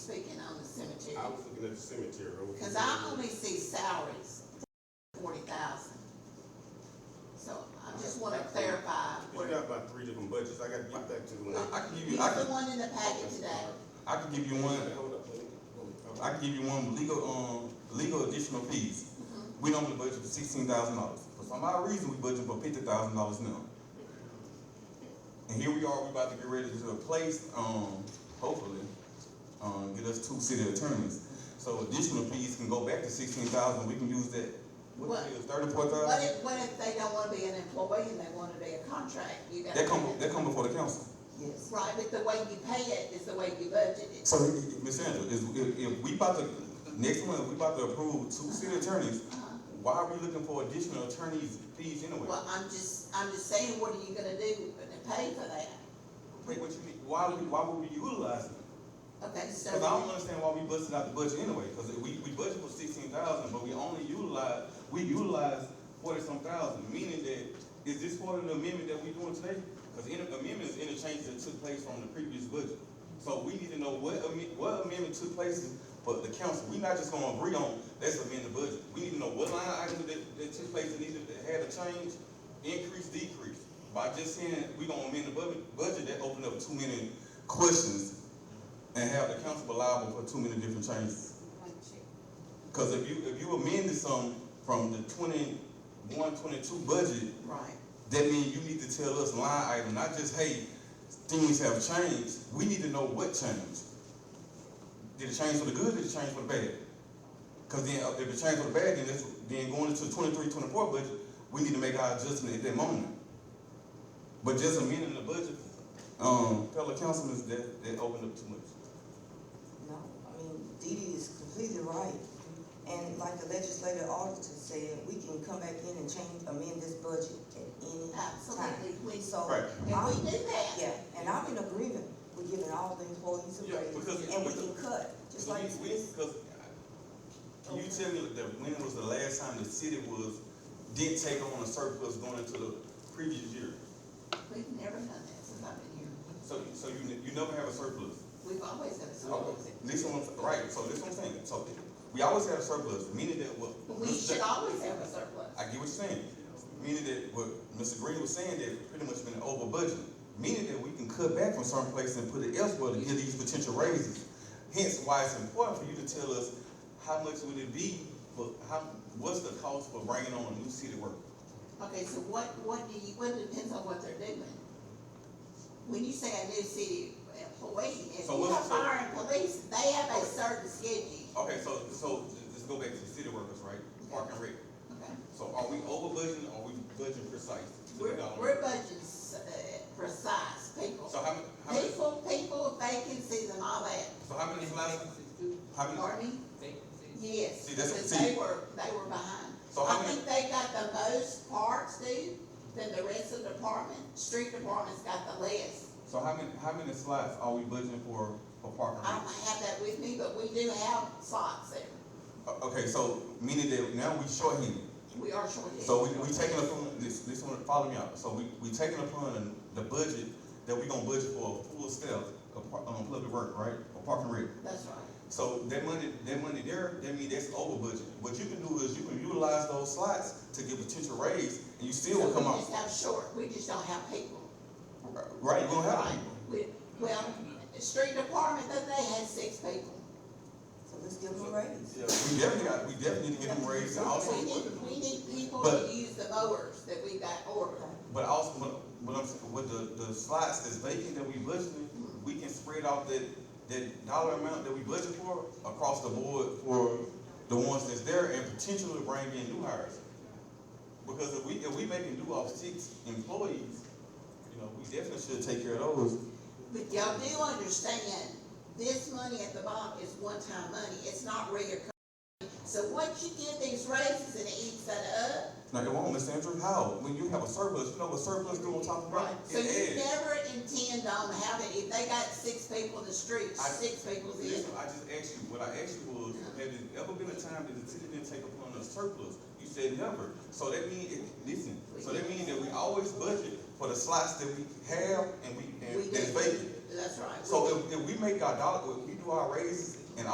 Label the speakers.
Speaker 1: I was looking at the cemetery. over
Speaker 2: Cause
Speaker 1: here.
Speaker 2: I only see salaries, forty thousand. So I just wanna clarify
Speaker 1: You
Speaker 2: where,
Speaker 1: got about three different budgets, I gotta get back to the one.
Speaker 3: I, I can give
Speaker 2: these
Speaker 3: you, I
Speaker 2: are
Speaker 3: can,
Speaker 2: the one in the packet today.
Speaker 3: I can give you one,
Speaker 1: Hold up, let me- hold up.
Speaker 3: I can give you one legal, um, legal additional fees.
Speaker 2: Mm-hmm.
Speaker 3: We normally budget for sixteen thousand dollars. For some odd reason, we budget for fifty thousand dollars now. And here we are, we about to get ready to replace, um, hopefully, um, get us two city attorneys. So additional fees can go back to sixteen thousand, we can use that, what
Speaker 2: What-
Speaker 3: it is, thirty-four
Speaker 2: What
Speaker 3: thousand?
Speaker 2: if, what if they don't wanna be an employee and they wanna be a contract? You gotta
Speaker 3: That come,
Speaker 2: pay
Speaker 3: that come before the council.
Speaker 2: Yes, right, but the way you pay it is the way you budget it.
Speaker 3: So, i- i- Ms. Angela, is, if, if we about to, next month, we about to approve two city attorneys,
Speaker 2: Uh-huh.
Speaker 3: why are we looking for additional attorneys fees anyway?
Speaker 2: Well, I'm just, I'm just saying, what are you gonna do to pay for that?
Speaker 3: Wait, what you mean, why would, why would we utilize them?
Speaker 2: Okay,
Speaker 3: Cause I don't
Speaker 2: so,
Speaker 3: understand why we busted out the budget anyway, cause we, we budgeted for sixteen thousand, but we only utilize, we utilize forty-some thousand, meaning that, is this part of the amendment that we doing today? Cause in, amendments interchange that took place from the previous budget. So we need to know what amendment, what amendment took place for the council, we not just gonna agree on, let's amend the budget. We need to know what line items that, that took place that needed, that had a change, increase, decrease. By just saying, we gonna amend the budget, budget, that opened up too many questions and have the council liable for too many different changes. Cause if you, if you amended some from the 21, 22 budget,
Speaker 2: right,
Speaker 3: that means you need to tell us line item, not just, hey, things have changed, we need to know what changed. Did it change for the good, did it change for the bad? Cause then, uh, if it changed for the bad, then that's, then going into 23, 24 budget, we need to make our adjustment at that moment. But just amending the budget, um, fellow councilmen, that, that opened up too much.
Speaker 4: No, I mean, Dee Dee is completely right. And like the legislative auditor said, we can come back in and change, amend this budget at any
Speaker 2: absolutely,
Speaker 4: time.
Speaker 2: we,
Speaker 4: So,
Speaker 3: Right.
Speaker 2: and we do that.
Speaker 4: yeah, and I'm in agreement with giving all the employees a
Speaker 3: Yeah, because-
Speaker 4: raise, and we can
Speaker 3: because-
Speaker 4: cut, just
Speaker 3: So
Speaker 4: like
Speaker 3: we-
Speaker 4: this.
Speaker 3: we- Cause I- you tell me that when was the last time the city was, did take on a surplus going into the previous year?
Speaker 2: We've never done that since I've been here.
Speaker 3: So, so you, ne- you never have a surplus?
Speaker 2: We've always had a surplus.
Speaker 3: This one, right, so this one thing, so we always have a surplus, meaning that what.
Speaker 2: We should always have a surplus.
Speaker 3: I get what you're saying, meaning that what Mr. Green was saying, that pretty much been over budget, meaning that we can cut back from certain places and put it elsewhere to get these potential raises. Hence why it's important for you to tell us how much would it be, for how, what's the cost for bringing on a new city worker?
Speaker 2: Okay, so what, what do you, well, it depends on what they're doing. When you say a new city employee, if
Speaker 3: So
Speaker 2: you are
Speaker 3: what's the-
Speaker 2: hiring police, they have a certain schedule.
Speaker 3: Okay, so, so, let's go back to the city workers, right, park and rec,
Speaker 2: Okay,
Speaker 3: so are we over budgeting, or are we budgeting precise? to the
Speaker 2: We're,
Speaker 3: dollar?
Speaker 2: we're budgeting uh, precise people.
Speaker 3: So how many, how many,
Speaker 2: People, people, vacancies and all that,
Speaker 3: so how many slides, how many,
Speaker 2: pardon me? Yes,
Speaker 3: See, that's-
Speaker 2: because
Speaker 3: see-
Speaker 2: they were, they were behind.
Speaker 3: so
Speaker 2: I
Speaker 3: how many,
Speaker 2: think they got the most parts, dude, than the rest of the department. Street department's got the least.
Speaker 3: so how many, how many slides are we budgeting for, for park and
Speaker 2: I
Speaker 3: rec?
Speaker 2: don't have that with me, but we do have slots there.
Speaker 3: O- Okay, so meaning that now we shorthanded.
Speaker 2: We are shorthanded.
Speaker 3: So we, we taking upon, this, this one, follow me out. So we, we taking upon the budget that we gonna budget for a full staff of, par- um, public work, right? Or parking rec.
Speaker 2: That's right.
Speaker 3: So that money, that money there, that mean that's over budget. What you can do is you can utilize those slots to get potential raise and you still will come
Speaker 2: So we
Speaker 3: out.
Speaker 2: just have short, we just don't have people.
Speaker 3: Right, you gonna have
Speaker 2: Right. We, well, the street department, that they had six people.
Speaker 4: So let's give them a raise.
Speaker 3: Yeah, we definitely got, we definitely need to get them raised and also.
Speaker 2: We need, we need people
Speaker 3: But-
Speaker 2: to use the mowers that we got ordered.
Speaker 3: But also, what, what I'm, saying, with the, the slots that's vacant that we budgeting, we can spread out that, that dollar amount that we budget for across the board for the ones that's there and potentially bring in new hires. Because if we, if we making do off six employees, you know, we definitely should take care of those.
Speaker 2: But y'all do understand, this money at the bottom is one-time money, it's not reoccurring. So once you give these raises and it eats that up,
Speaker 3: Now, it won't, Miss Andrew, how? When you have a surplus, you know what surplus do on top of
Speaker 2: Right,
Speaker 3: it?
Speaker 2: so
Speaker 3: It
Speaker 2: you
Speaker 3: adds.
Speaker 2: never intend on having, if they got six people in the street,
Speaker 3: I-
Speaker 2: six people's in.
Speaker 3: Listen, I just asked you, what I asked you was, have there ever been a time that the city didn't take upon a surplus? You said never, so that mean, it, listen, so that means that we always budget for the slots that we have and we,
Speaker 2: We
Speaker 3: and that's
Speaker 2: do.
Speaker 3: vacant.
Speaker 2: That's right.
Speaker 3: So if, if we make our dollar, if we do our raises